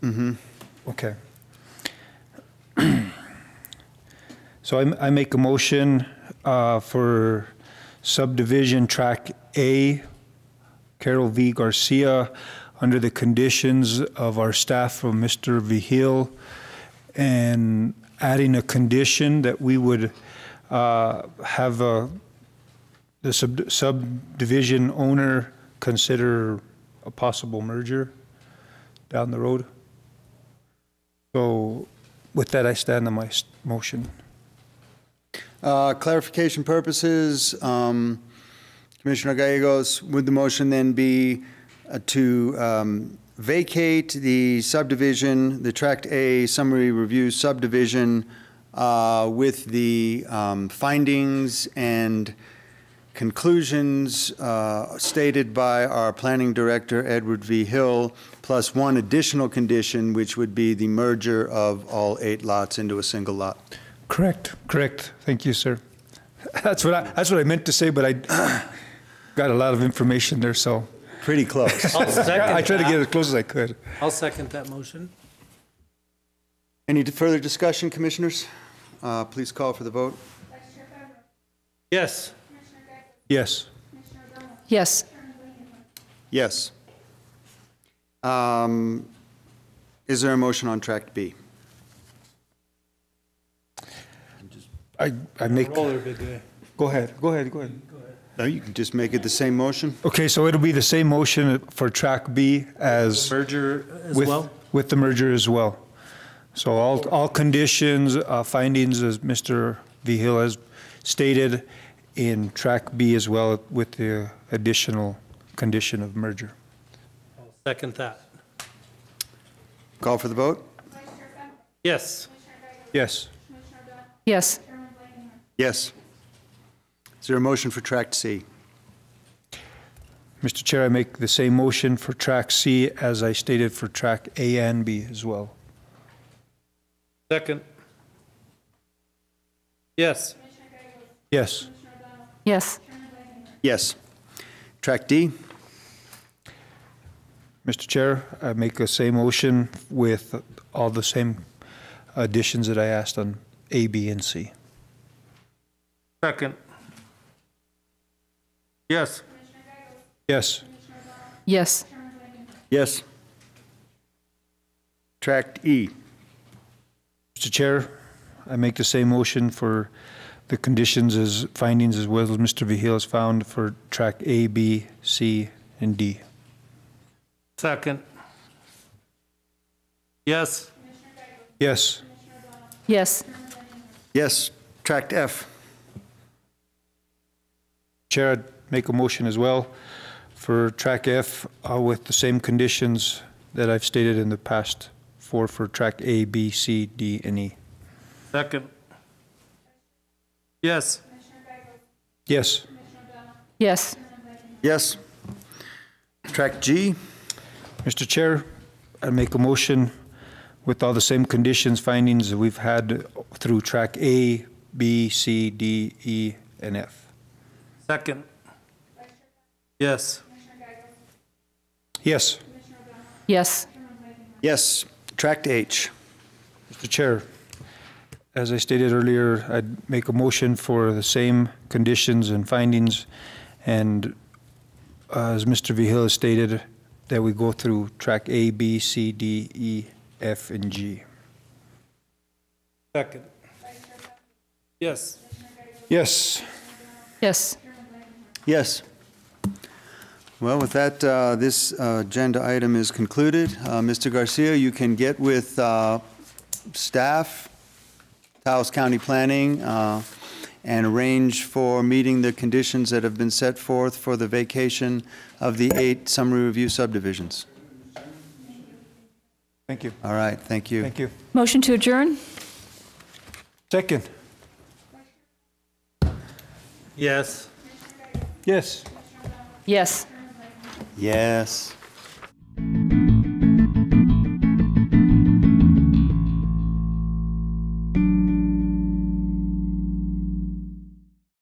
Okay. So I, I make a motion uh, for subdivision track A, Carol V. Garcia, under the conditions of our staff from Mr. Vihil, and adding a condition that we would uh, have a, the sub- subdivision owner consider a possible merger down the road. So with that, I stand on my s- motion. Uh, Clarification purposes, um, Commissioner Gallegos, would the motion then be uh, to um, vacate the subdivision, the Tract A summary review subdivision uh, with the um, findings and conclusions uh, stated by our planning director, Edward V. Hill, plus one additional condition, which would be the merger of all eight lots into a single lot? Correct. Correct. Thank you, sir. That's what I, that's what I meant to say, but I got a lot of information there, so Pretty close. I'll I second tried to get that. as close as I could. I'll second that motion. Any further discussion, commissioners? Uh, Please call for the vote. Yes. Yes. Yes. Yes. Um, Is there a motion on Tract B? I, I make, Roller video. go ahead, go ahead, go ahead. No, you can just make it the same motion. Okay, so it'll be the same motion for track B as Merger as with, well? with the merger as well. So all, all conditions, uh, findings, as Mr. Vihil has stated, in track B as well with the additional condition of merger. Second that. Call for the vote? Yes. Yes. Yes. Yes. Is there a motion for Tract C? Mr. Chair, I make the same motion for track C as I stated for track A and B as well. Second. Yes. Yes. Yes. Yes. Tract D? Mr. Chair, I make the same motion with all the same additions that I asked on A, B, and C. Second. Yes. Yes. Yes. Yes. Tract E? Mr. Chair, I make the same motion for the conditions as findings as well as Mr. Vihil has found for track A, B, C, and D. Second. Yes. Yes. Yes. Yes. Tract F? Chair, I'd make a motion as well for track F uh, with the same conditions that I've stated in the past for, for track A, B, C, D, and E. Second. Yes. Yes. Yes. Yes. Tract G? Mr. Chair, I make a motion with all the same conditions, findings that we've had through track A, B, C, D, E, and F. Second. Yes. Yes, Yes. Yes. Tract H? Mr. Chair, as I stated earlier, I'd make a motion for the same conditions and findings, and uh, as Mr. Vihil has stated, that we go through track A, B, C, D, E, F, and G. Second. Yes. Yes. Yes. Yes. Well, with that, uh, this uh, agenda item is concluded. Uh, Mr. Garcia, you can get with uh, staff, Taos County Planning, uh, and arrange for meeting the conditions that have been set forth for the vacation of the eight summary review subdivisions. Thank you. All right, thank you. Thank you. Motion to adjourn? Second. Yes. Yes. Yes. Yes.